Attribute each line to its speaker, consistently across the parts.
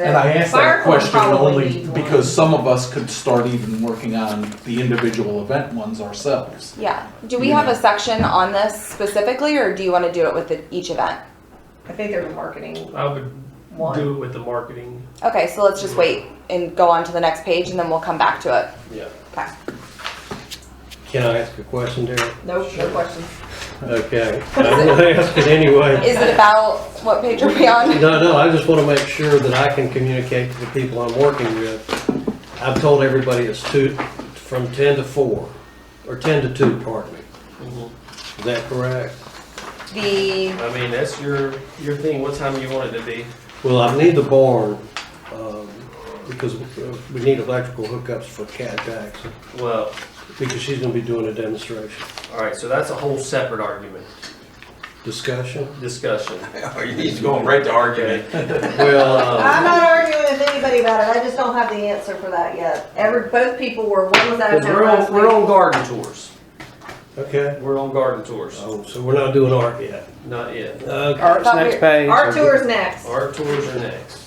Speaker 1: And I asked
Speaker 2: Fire
Speaker 1: that
Speaker 2: code
Speaker 1: question
Speaker 2: probably
Speaker 1: only
Speaker 2: needs one.
Speaker 1: because some of us could start even working on the individual event ones ourselves.
Speaker 3: Yeah. Do we have a section on this specifically, or do you want to do it with the, each event?
Speaker 2: I think there's a marketing
Speaker 4: I would
Speaker 2: one.
Speaker 4: do it with the marketing.
Speaker 3: Okay, so let's just wait and go on to the next page, and then we'll come back to it.
Speaker 5: Yeah.
Speaker 3: Okay.
Speaker 5: Can I ask a question, Derek?
Speaker 2: No, no questions.
Speaker 5: Okay, I'm gonna ask it anyway.
Speaker 3: Is it about what page are we on?
Speaker 5: No, no, I just wanna make sure that I can communicate to the people I'm working with. I've told everybody it's two, from ten to four, or ten to two, pardon me. Is that correct?
Speaker 3: The
Speaker 4: I mean, that's your, your thing, what time you want it to be.
Speaker 5: Well, I need the barn, um, because we need electrical hookups for Cat Jackson,
Speaker 4: Well,
Speaker 5: because she's gonna be doing a demonstration.
Speaker 4: all right, so that's a whole separate argument,
Speaker 5: Discussion?
Speaker 4: discussion.
Speaker 6: He's going right to argument.
Speaker 5: Well,
Speaker 1: Oh.
Speaker 2: I'm not arguing with anybody about it, I just don't have the answer for that yet. Every, both people were, one was out of
Speaker 4: Because
Speaker 2: town
Speaker 4: we're
Speaker 2: last
Speaker 4: on, we're
Speaker 2: week.
Speaker 4: on garden tours.
Speaker 5: okay.
Speaker 4: We're on garden tours,
Speaker 5: Oh, so we're not doing art yet.
Speaker 4: not yet. Uh,
Speaker 5: Okay.
Speaker 3: Art's Thought we- next
Speaker 5: page.
Speaker 2: Our tour's next.
Speaker 4: Our tours are next.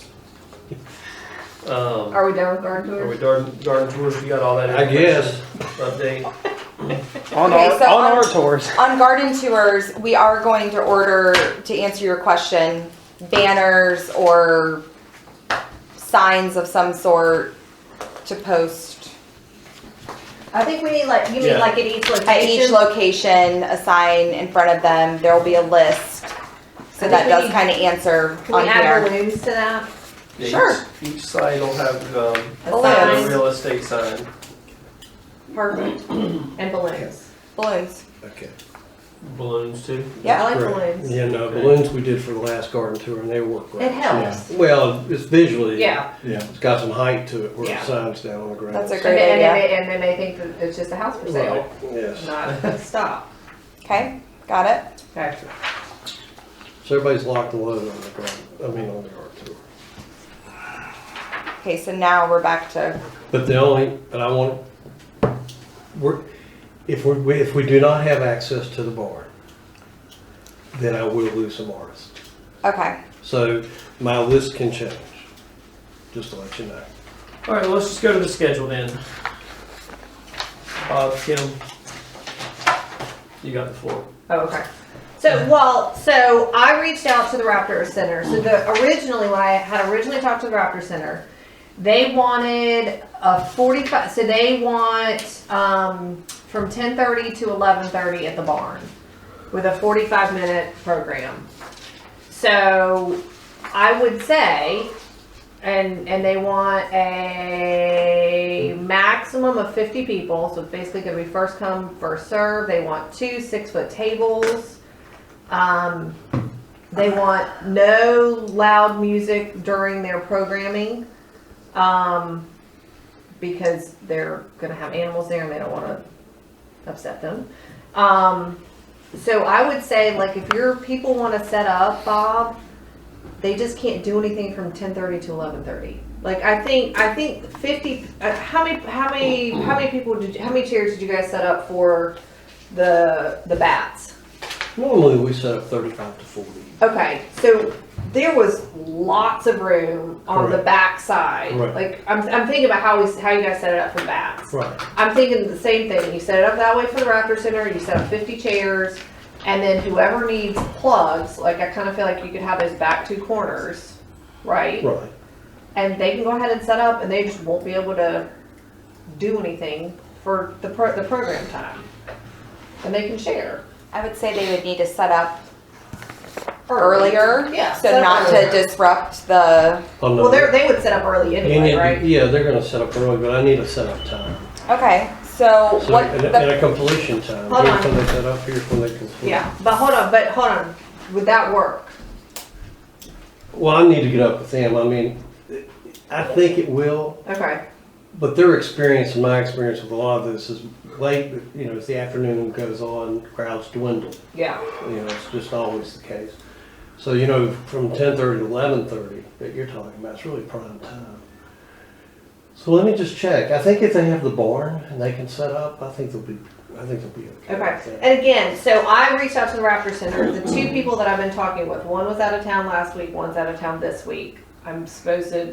Speaker 4: Um,
Speaker 2: Are we done with our
Speaker 4: are we
Speaker 2: tours?
Speaker 4: garden, garden tours, you got all that?
Speaker 5: I guess.
Speaker 4: information? Update,
Speaker 7: On
Speaker 3: Okay,
Speaker 7: our,
Speaker 3: so
Speaker 7: on
Speaker 3: on-
Speaker 7: our tours.
Speaker 3: on garden tours, we are going to order to answer your question banners or signs of some sort to post
Speaker 2: I think we need like, you mean
Speaker 4: Yeah.
Speaker 2: like at each
Speaker 3: at each
Speaker 2: location?
Speaker 3: location a sign in front of them. There will be a list, so
Speaker 2: I think
Speaker 3: that
Speaker 2: we
Speaker 3: does
Speaker 2: need-
Speaker 3: kind of answer
Speaker 2: Can
Speaker 3: on
Speaker 2: we add
Speaker 3: here.
Speaker 2: balloons to that?
Speaker 4: Yeah,
Speaker 3: Sure.
Speaker 4: Each each site will have, um,
Speaker 2: A
Speaker 3: Balloons.
Speaker 4: a
Speaker 2: sign.
Speaker 4: real estate sign.
Speaker 2: Perfect. And balloons.
Speaker 3: Balloons.
Speaker 5: Okay.
Speaker 4: Balloons too.
Speaker 2: I
Speaker 3: Yeah.
Speaker 2: like
Speaker 5: Right.
Speaker 2: balloons.
Speaker 5: Yeah, no, balloons we did for the last garden tour and they work
Speaker 2: It
Speaker 5: great.
Speaker 2: helps.
Speaker 5: Well, it's visually.
Speaker 2: Yeah.
Speaker 1: Yeah.
Speaker 5: It's got some height to it where
Speaker 2: Yeah.
Speaker 5: the sign's down on the ground.
Speaker 3: That's a
Speaker 2: And
Speaker 3: great
Speaker 2: then, and
Speaker 3: idea.
Speaker 2: they, and then they think that it's just a house for sale,
Speaker 5: Yes.
Speaker 2: not a stop.
Speaker 3: Okay. Got it.
Speaker 2: Okay.
Speaker 5: So everybody's locked and loaded on the ground, I mean, on the art tour.
Speaker 3: Okay. So now we're back to
Speaker 5: But the only, but I want, we're, if we, we- if we do not have access to the barn, then I will lose some artists.
Speaker 3: okay.
Speaker 5: So my list can change, just to let you know.
Speaker 4: All right, well, let's just go to the schedule then. Bob, Kim, you got the floor.
Speaker 2: Oh, okay. So, well, so I reached out to the Raptor Center. So the, originally, when I had originally talked to the Raptor Center, they wanted a forty-five, so they want, um, from ten-thirty to eleven-thirty at the barn with a forty-five minute program. So I would say, and, and they want a maximum of fifty people, so it's basically gonna be first come, first serve. They want two six-foot tables. Um, they want no loud music during their programming. Um, because they're gonna have animals there and they don't wanna upset them. Um, so I would say, like, if your people wanna set up, Bob, they just can't do anything from ten thirty to eleven thirty. Like I think I think fifty. Uh, how many how many how many people did you, how many chairs did you guys set up for the the bats?
Speaker 5: Normally, we set up thirty-five to forty.
Speaker 2: Okay, so there was lots of room on the
Speaker 5: Correct.
Speaker 2: back side.
Speaker 5: Right.
Speaker 2: Like I'm, I'm thinking about how we how you guys set it up for bats.
Speaker 5: Right.
Speaker 2: I'm thinking the same thing. You set it up that way for the Raptor Center, you set up 50 chairs, and then whoever needs plugs, like I kind of feel like you could have those back two corners, right?
Speaker 5: Right.
Speaker 2: And they can go ahead and set up, and they just won't be able to do anything for the, pro- the program time. And they can share.
Speaker 3: I would say they would need to set up earlier.
Speaker 2: Yeah. set
Speaker 3: So
Speaker 2: up
Speaker 3: not
Speaker 2: earlier.
Speaker 3: to disrupt the.
Speaker 5: On the-
Speaker 2: Well, they're, they would set up early
Speaker 5: You need
Speaker 2: anyway,
Speaker 5: to-
Speaker 2: right?
Speaker 5: Yeah, they're gonna set up early, but I need a setup time.
Speaker 3: Okay. So
Speaker 5: So,
Speaker 3: what?
Speaker 5: and a, and
Speaker 3: The,
Speaker 5: a completion time.
Speaker 2: Hold
Speaker 5: Here's
Speaker 2: on.
Speaker 5: when they set up, here's when they complete.
Speaker 2: Yeah, but hold on, but hold on. Would that work?
Speaker 5: Well, I need to get up with them. I mean, I think it will,
Speaker 2: Okay.
Speaker 5: but their experience and my experience with a lot of this is late, you know, as the afternoon goes on, crowds dwindle.
Speaker 2: Yeah.
Speaker 5: You know, it's just always the case. So, you know, from ten thirty to eleven thirty that you're talking about, it's really prime time. So let me just check. I think if they have the barn and they can set up, I think they'll be, I think they'll be okay. with
Speaker 2: Okay.
Speaker 5: that.
Speaker 2: And again, so I reached out to the Raptor Center. The two people that I've been talking with, one was out of town last week, one's out of town this week. I'm supposed to